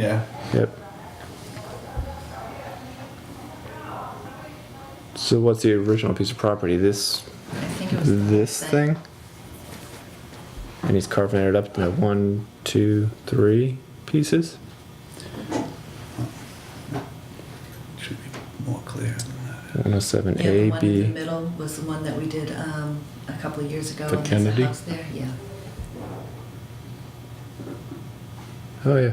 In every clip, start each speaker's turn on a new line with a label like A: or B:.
A: Yeah.
B: Yep. So what's the original piece of property? This
C: I think it was. the
B: this
C: same.
B: thing? And he's carving it up into one, two, three pieces.
A: Should be more clear than that.
B: One oh seven
C: Yeah, the
B: A
C: one in the
B: B.
C: middle was the one that we did um, a couple of years ago.
B: The
C: and there's a
B: Kennedy?
C: house there, yeah.
B: Oh yeah.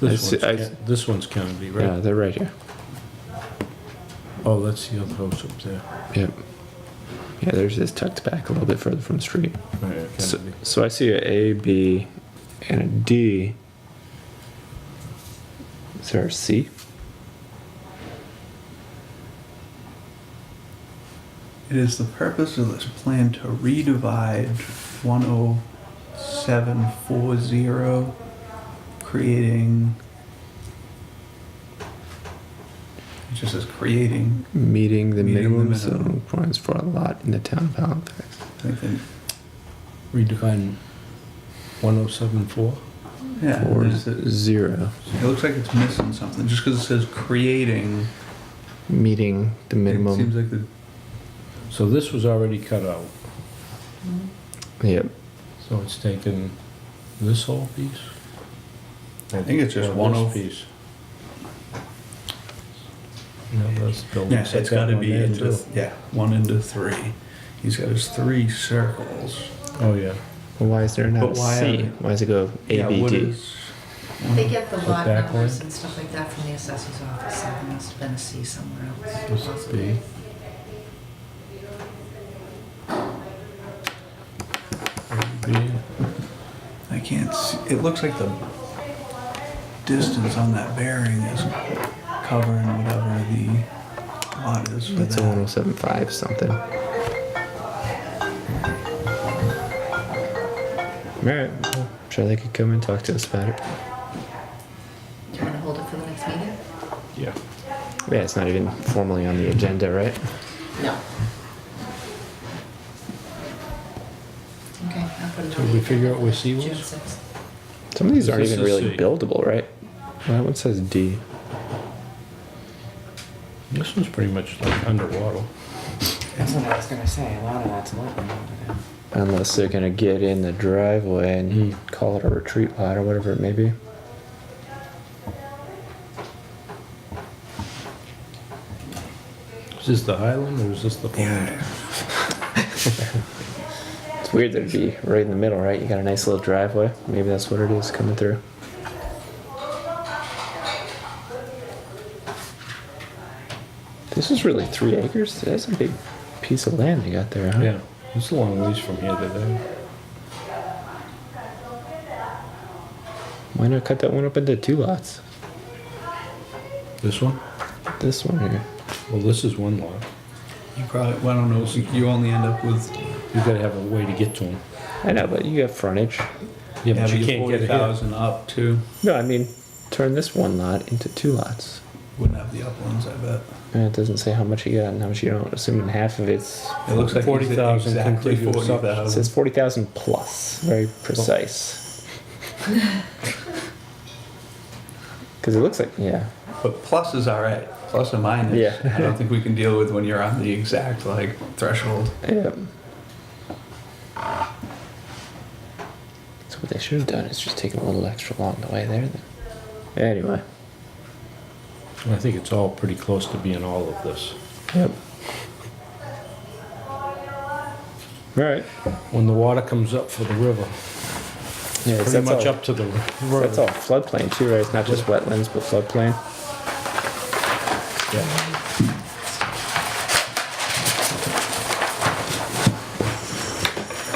D: This
B: I see-
D: one's,
B: I-
D: Ken- this one's Kennedy,
B: Yeah,
D: right?
B: they're right here.
D: Oh, that's the other house up there.
B: Yep. Yeah, there's this tucked back a little bit further from the street.
D: Right,
B: So,
D: Kennedy.
B: so I see a A, B, and a D. Is there a C?
A: It is the purpose of this plan to redivide 10740, creating. It just says creating.
B: Meeting
A: Meeting
B: the
A: the
B: minimum
A: minimum.
B: zone requirements for a lot in the town of Halifax.
A: I think they-
D: Redefine 1074?
A: yeah.
B: Or
A: there's the-
B: zero.
A: It looks like it's missing something. Just because it says creating,
B: Meeting the
A: it seems
B: minimum.
A: like the
D: So this was already cut out,
C: Mhm.
B: Yep.
D: so it's taken this whole piece?
A: I think it's just
D: Or
A: one
D: this
B: oh
A: of-
D: Piece. No, that's the building.
A: Yeah,
D: set
A: it's
D: that
A: got to
D: one
A: be
D: there,
A: into
D: too.
A: yeah one into three. He's got his three circles.
D: Oh, yeah.
B: Well, why is there not
A: But
B: a
A: why
B: C?
A: are-
B: Why does it go A,
A: yeah,
B: B,
A: what
B: D?
A: is-
C: They get the
D: Put
C: lot
D: back
C: numbers
D: one.
C: and stuff like that from the assessor's office, so there must have been a C somewhere else.
D: This is B. B.
A: I can't. See, it looks like the distance on that bearing is covering whatever the lot is. For
B: That's a
A: that.
B: 1075 something. All right. well, I'm sure they could come and talk to us about it.
C: Do you want to hold it for the next meeting?
D: Yeah.
B: Yeah, it's not even formally on the agenda, right?
C: No. Okay, I'll put it
D: So
C: on. the
D: we figure out
C: agenda
D: where
C: for
D: C was?
C: June 6th.
B: Some of these
D: This
B: aren't
D: is
B: even
D: a
B: really
D: C.
B: buildable, right? Well, that one says D.
D: This one's pretty much like underwater.
E: That's what I was gonna say. A lot of that's open over there.
B: Unless they're gonna get in the driveway and he call it a retreat lot or whatever it may be.
D: Is this the Highland or is this the Flamingo?
B: It's weird that it'd be right in the middle, right? You got a nice little driveway. Maybe that's what it is coming through. This is really three acres. That's a big piece of land they got there, huh?
D: Yeah, it's a long ways from here to there.
B: Why not cut that one up into two lots?
D: This one?
B: This one here.
D: Well, this is one lot.
A: You probably. Well, I don't know. You only end up with.
D: You gotta have a way to get to them.
B: I know, but you have frontage.
D: Yeah,
A: Yeah,
D: but you can't get
A: forty
D: it here.
A: thousand up too.
B: No, I mean, turn this one lot into two lots.
A: Wouldn't have the uplands, I bet.
B: And it doesn't say how much you got and how much you don't. Assuming half of it's
A: It looks like he's at
D: 40,000
A: exactly
D: contiguous
A: forty
B: it
A: thousand.
B: says forty thousand plus. Very precise. Because it looks like yeah,
A: But plus is all right. Plus and minus.
B: Yeah.
A: I don't think we can deal with when you're on the exact like threshold.
B: yeah. So what they should have done is just taken a little extra along the way there. Then. Anyway.
D: I think it's all pretty close to being all of this.
B: Yep. All right.
D: When the water comes up for the river,
B: Yeah, it's-
D: pretty
B: that's
D: much
B: all-
D: up to the
B: That's all
D: river.
B: floodplain too, right? It's not just wetlands, but floodplain.
D: Yeah.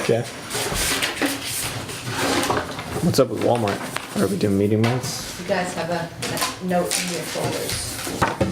B: Okay. What's up with Walmart? Are we doing meeting months?
C: You guys have a a note in your folders.